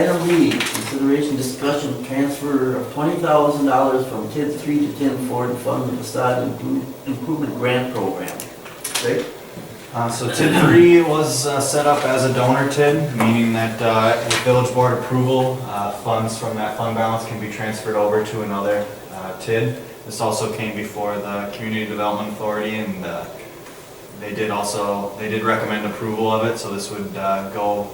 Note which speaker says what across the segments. Speaker 1: Item B, consideration discussion transfer of twenty thousand dollars from TID three to TID four to fund the facade impro- improvement grant program. Rick?
Speaker 2: Uh, So TID three was uh, set up as a donor TID, meaning that uh, with village board approval, uh, funds from that fund balance can be transferred over to another uh, TID. This also came before the Community Development Authority and uh, they did also, they did recommend approval of it, so this would uh, go,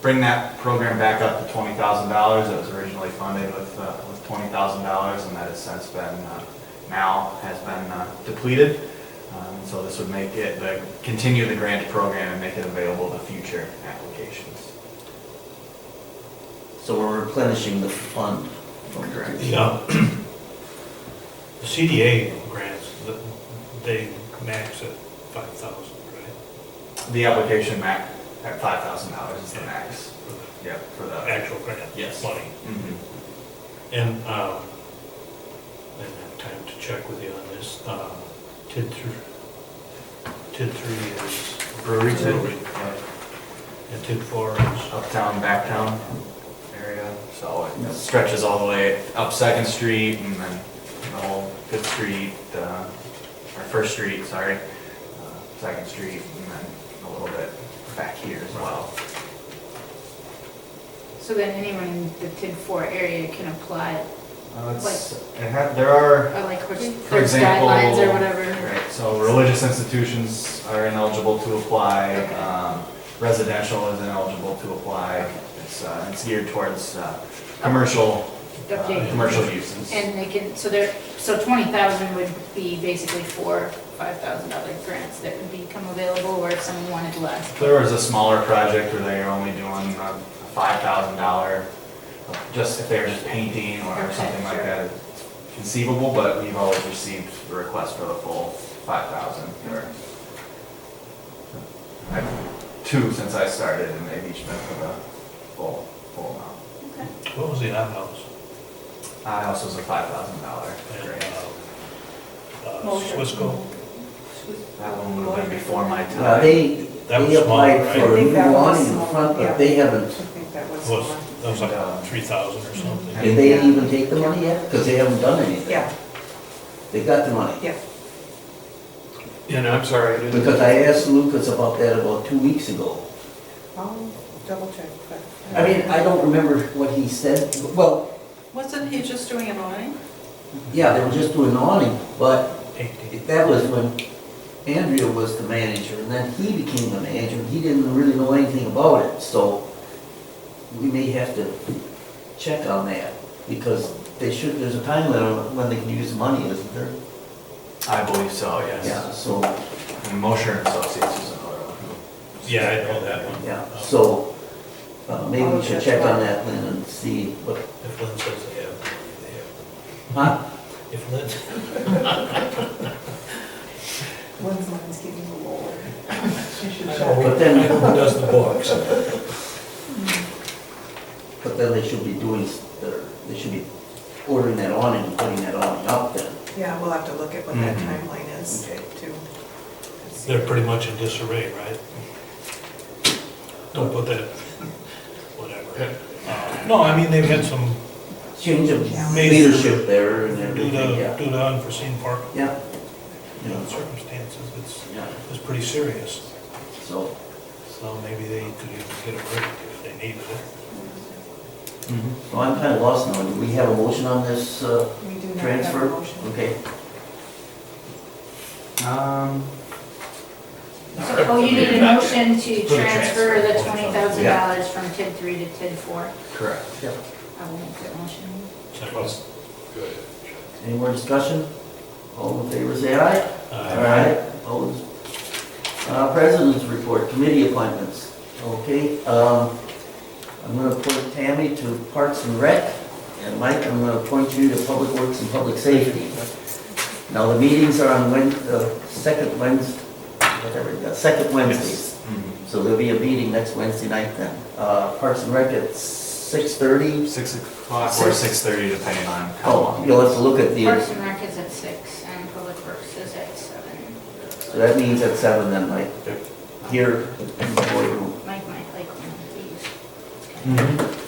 Speaker 2: bring that program back up to twenty thousand dollars. It was originally funded with, uh, with twenty thousand dollars and that has since been, uh, now has been uh, depleted. Um, So this would make it, the- continue the grant program and make it available to future applications.
Speaker 1: So we're replenishing the fund. from
Speaker 2: Correct.
Speaker 3: The uh, the CDA grants, th- they max at five thousand, right?
Speaker 2: The application max at five thousand dollars is the max.
Speaker 3: For the
Speaker 2: Yep, for the.
Speaker 3: Actual grant.
Speaker 2: Yes.
Speaker 3: Money.
Speaker 2: Mhm.
Speaker 3: And um, I didn't have time to check with you on this. Um, TID three, TID three is.
Speaker 2: Brewery TID.
Speaker 3: right. And TID four is,
Speaker 2: Uptown, backtown area, so it stretches all the way up Second Street and then the whole Fifth Street, uh, or First Street, sorry. uh, Second Street and then a little bit back here as well.
Speaker 4: So then anyone in the TID four area can apply,
Speaker 2: Uh, it's- it had- there are
Speaker 4: or like, which-
Speaker 2: For
Speaker 4: there's
Speaker 2: example,
Speaker 4: guidelines or whatever.
Speaker 2: Right, so religious institutions are ineligible to apply,
Speaker 4: Okay.
Speaker 2: um, residential is ineligible to apply. It's, uh, it's geared towards, uh, commercial, uh,
Speaker 4: Okay.
Speaker 2: commercial uses.
Speaker 4: And they can, so they're, so twenty thousand would be basically four five thousand dollar grants that would become available, or if someone wanted less.
Speaker 2: There was a smaller project where they were only doing a five thousand dollar, just if they were just painting or
Speaker 4: Okay,
Speaker 2: something like that.
Speaker 4: sure.
Speaker 2: it's Conceivable, but we've always received a request for the full five thousand or. I've- Two since I started and they've each been for the full, full amount.
Speaker 3: what was the odd house?
Speaker 2: I also was a five thousand dollar
Speaker 3: And, um,
Speaker 2: grant.
Speaker 3: uh, uh, Swisco?
Speaker 2: That one would have been before my time.
Speaker 1: Now, Uh, they,
Speaker 3: That was
Speaker 1: they applied
Speaker 3: smaller, right?
Speaker 1: for
Speaker 5: I
Speaker 1: a
Speaker 5: think
Speaker 1: new
Speaker 5: that was
Speaker 1: awning in
Speaker 5: smaller,
Speaker 1: front,
Speaker 5: yeah.
Speaker 1: but they haven't,
Speaker 5: I think that was.
Speaker 3: Was,
Speaker 5: the one.
Speaker 3: that was
Speaker 2: Um,
Speaker 3: like three thousand or something.
Speaker 1: did they even take the money yet? Because they haven't done anything.
Speaker 5: Yeah,
Speaker 1: They got the money.
Speaker 5: yeah.
Speaker 6: And I'm sorry, I didn't,
Speaker 1: Because I asked Lucas about that about two weeks ago.
Speaker 5: I'll double check, but.
Speaker 1: I mean, I don't remember what he said, well,
Speaker 7: Wasn't he just doing an awning?
Speaker 1: yeah, they were just doing awning, but
Speaker 3: Eighteen.
Speaker 1: That was when Andrea was the manager, and then he became the manager, and he didn't really know anything about it, so we may have to check on that, because they should, there's a time limit on when they can use the money, isn't there?
Speaker 2: I believe so, yes.
Speaker 1: Yeah, so,
Speaker 2: And Mosher and Associates is another one.
Speaker 3: Yeah, I know that one.
Speaker 1: yeah,
Speaker 3: Um,
Speaker 1: so, uh, maybe we should check on that then and see what,
Speaker 3: If Lynn says they have, they have.
Speaker 1: huh?
Speaker 3: If Lynn,
Speaker 5: When's mine's getting a roll? She should
Speaker 3: I
Speaker 5: check.
Speaker 3: don't know
Speaker 1: Oh, But then-
Speaker 3: who does the books.
Speaker 1: But then they should be doing, s- their- they should be ordering that awning and putting that Mm-hmm. awning up then.
Speaker 5: Yeah, we'll have to look at what that
Speaker 2: Mhm.
Speaker 5: timeline is too.
Speaker 3: They're pretty much in disarray, right? Don't put that, whatever. Uh, No, I mean, they've had some,
Speaker 1: Change of
Speaker 3: Maybe-
Speaker 1: leadership there and
Speaker 3: due
Speaker 1: everything,
Speaker 3: to,
Speaker 1: yeah.
Speaker 3: due to unforeseen park
Speaker 1: Yeah.
Speaker 3: you know, circumstances, it's,
Speaker 1: Yeah,
Speaker 3: it's pretty serious.
Speaker 1: so,
Speaker 3: So maybe they could even get a break if they needed it.
Speaker 2: Mm-hmm.
Speaker 1: so I'm kind of lost now. Do we have a motion on this uh,
Speaker 5: We do not have a
Speaker 1: transfer?
Speaker 5: motion.
Speaker 1: Okay,
Speaker 2: Um,
Speaker 4: Oh, you need a motion to
Speaker 2: For the
Speaker 4: transfer the
Speaker 3: transfer.
Speaker 4: twenty thousand dollars from TID three to TID four.
Speaker 2: correct.
Speaker 4: I will make that motion.
Speaker 3: Second.
Speaker 1: any more discussion? All in favor, say aye.
Speaker 3: Uh,
Speaker 1: Opposed? Uh, President's report, committee appointments. Okay, um, I'm gonna appoint Tammy to Parks and Rec, and Mike, I'm gonna appoint you to Public Works and Public Safety. Now, the meetings are on Wed, uh, second Wednesday, whatever, it is, second Wednesdays. Mm-hmm.
Speaker 2: Mhm.
Speaker 1: So there'll be a meeting next Wednesday night then. Uh, Parks and Rec at six thirty.
Speaker 2: Six o'clock or
Speaker 1: Six.
Speaker 2: six thirty, depending on how
Speaker 1: Oh,
Speaker 2: long.
Speaker 1: you'll have to look at
Speaker 4: Parks
Speaker 1: the,
Speaker 4: and Rec is at six, and Public Works is at seven.
Speaker 1: so that means at seven then, Mike.
Speaker 2: Yep.
Speaker 1: Here in the boardroom.
Speaker 4: Mike might like one of these.
Speaker 2: Mhm.